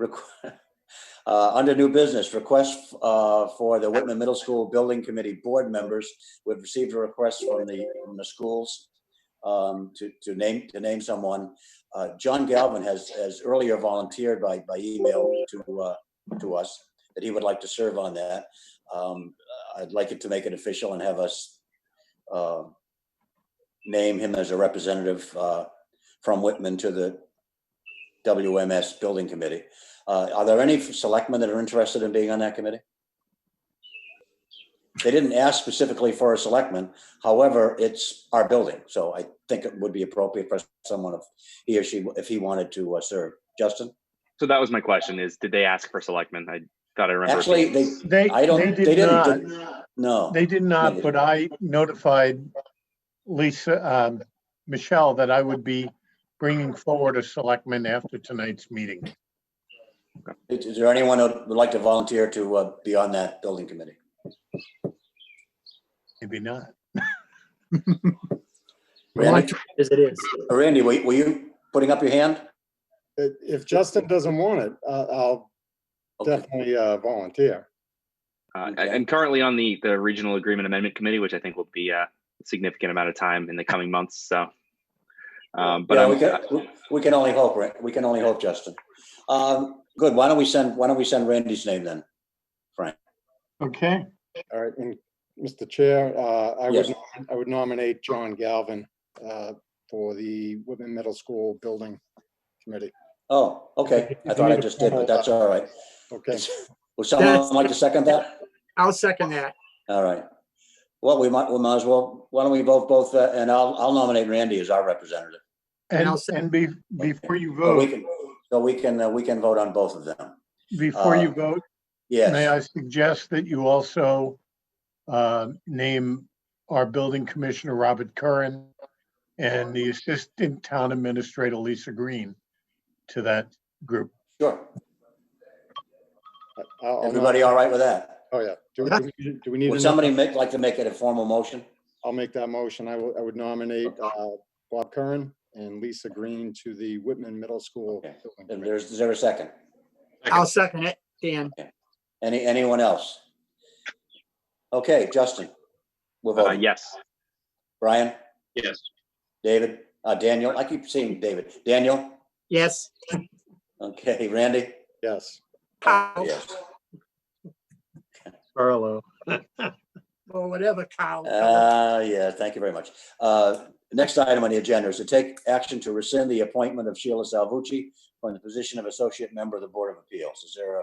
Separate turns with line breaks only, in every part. requ- uh, under new business, request uh, for the Whitman Middle School Building Committee Board members. We've received a request from the, from the schools um, to, to name, to name someone. Uh, John Galvin has, has earlier volunteered by, by email to, uh, to us that he would like to serve on that. Um, I'd like it to make it official and have us uh, name him as a representative uh, from Whitman to the WMS Building Committee. Uh, Are there any selectmen that are interested in being on that committee? They didn't ask specifically for a selectman. However, it's our building, so I think it would be appropriate for someone if he or she, if he wanted to uh, serve. Justin?
So that was my question is, did they ask for selectmen? I thought I remember.
Actually, they,
They,
I don't,
they
they
did not,
didn't, no.
they did
they
not,
did
but I notified Lisa, um, Michelle that I would be bringing forward a selectman after tonight's meeting.
Is is there anyone who would like to volunteer to uh, be on that building committee?
Maybe not.
Randy,
As it is.
Randy, were were you putting up your hand?
If if Justin doesn't want it, I- I'll
Okay.
definitely uh, volunteer.
Uh, I- I'm currently on the, the Regional Agreement Amendment Committee, which I think will be a significant amount of time in the coming months. So, um, but
Yeah,
I'm,
we can, we- we can only hope, Ra- we can only hope, Justin. Um, Good, why don't we send, why don't we send Randy's name then?
Okay,
All right, and Mr. Chair, uh, I would,
Yes.
nom- I would nominate John Galvin uh, for the Whitman Middle School Building Committee.
Oh, okay, I thought I just did, but that's all right.
Okay,
Would someone like to second that?
I'll second that.
All right. Well, we might, we might as well, why don't we both, both, uh, and I'll, I'll nominate Randy as our representative.
and,
I'll say-
and be, before you
So we
vote,
can, so we can, uh, we can vote on both of them.
before
uh,
you vote, may
Yes,
I suggest that you also uh, name our building commissioner, Robert Curran, and the assistant town administrator, Lisa Green, to that group.
sure.
I'll- I'll
Everybody all right with that?
nom- Oh, yeah. Do we- do we- do we need,
Would
another-
somebody make, like to make it a formal motion?
I'll make that motion. I would, I would nominate uh, Bob Curran and Lisa Green to the Whitman Middle School.
Okay.
Building
Is
Committee.
there- is there a second?
I'll second it, Dan.
Any, anyone else? Okay, Justin. We'll
uh,
vote.
yes.
Brian,
Yes.
David, uh, Daniel, I keep seeing David. Daniel?
Yes.
Okay, Randy?
Yes.
Cow,
Yes.
Carlo.
or whatever cow.
Uh, yeah, thank you very much. Uh, next item on the agenda is to take action to rescind the appointment of Sheila Salvucci from the position of Associate Member of the Board of Appeals. Is there a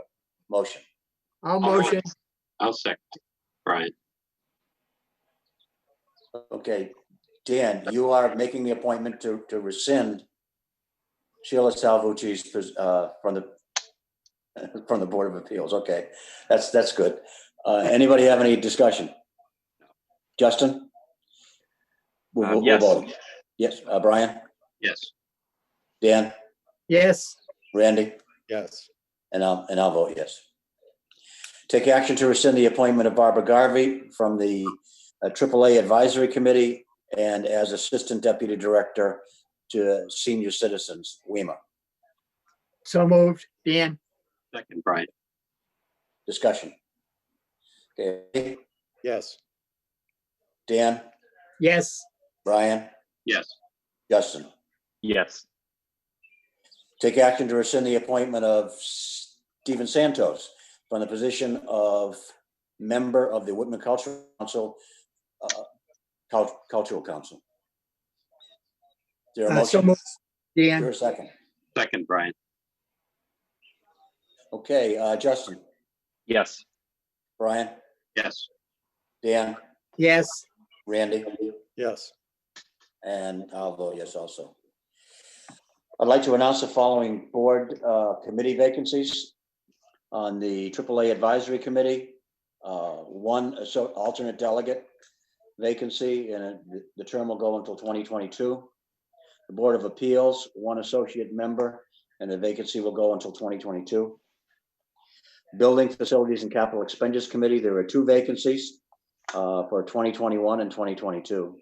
motion?
I'll motion.
I'll second, Brian.
Okay, Dan, you are making the appointment to, to rescind Sheila Salvucci's, pos- uh, from the, from the Board of Appeals. Okay, that's, that's good. Uh, anybody have any discussion? Justin? We'll-
Um,
we'll- we'll
yes.
vote. Yes, uh, Brian,
Yes,
Dan,
Yes.
Randy,
Yes.
and I'll, and I'll vote yes. Take action to rescind the appointment of Barbara Garvey from the uh, AAA Advisory Committee and as Assistant Deputy Director to Senior Citizens, WEMA.
So moved. Dan.
second, Brian.
Discussion. Okay,
Yes.
Dan,
Yes.
Brian,
Yes,
Justin.
Yes.
Take action to rescind the appointment of Stephen Santos from the position of member of the Whitman Cultural Council, uh, Cul- Cultural Council. Is there a
Uh, So
motion?
moved.
Is there
Dan.
a second?
second, Brian.
Okay, uh, Justin,
Yes.
Brian,
Yes,
Dan,
Yes.
Randy,
Yes.
and I'll vote yes also. I'd like to announce the following board uh, committee vacancies on the AAA Advisory Committee. uh, One asso- alternate delegate vacancy, and it- the term will go until 2022. The Board of Appeals, one associate member, and the vacancy will go until 2022. Building Facilities and Capital Expenditures Committee, there are two vacancies uh, for 2021 and 2022.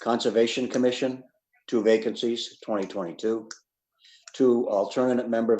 Conservation Commission, two vacancies, 2022. Two alternate member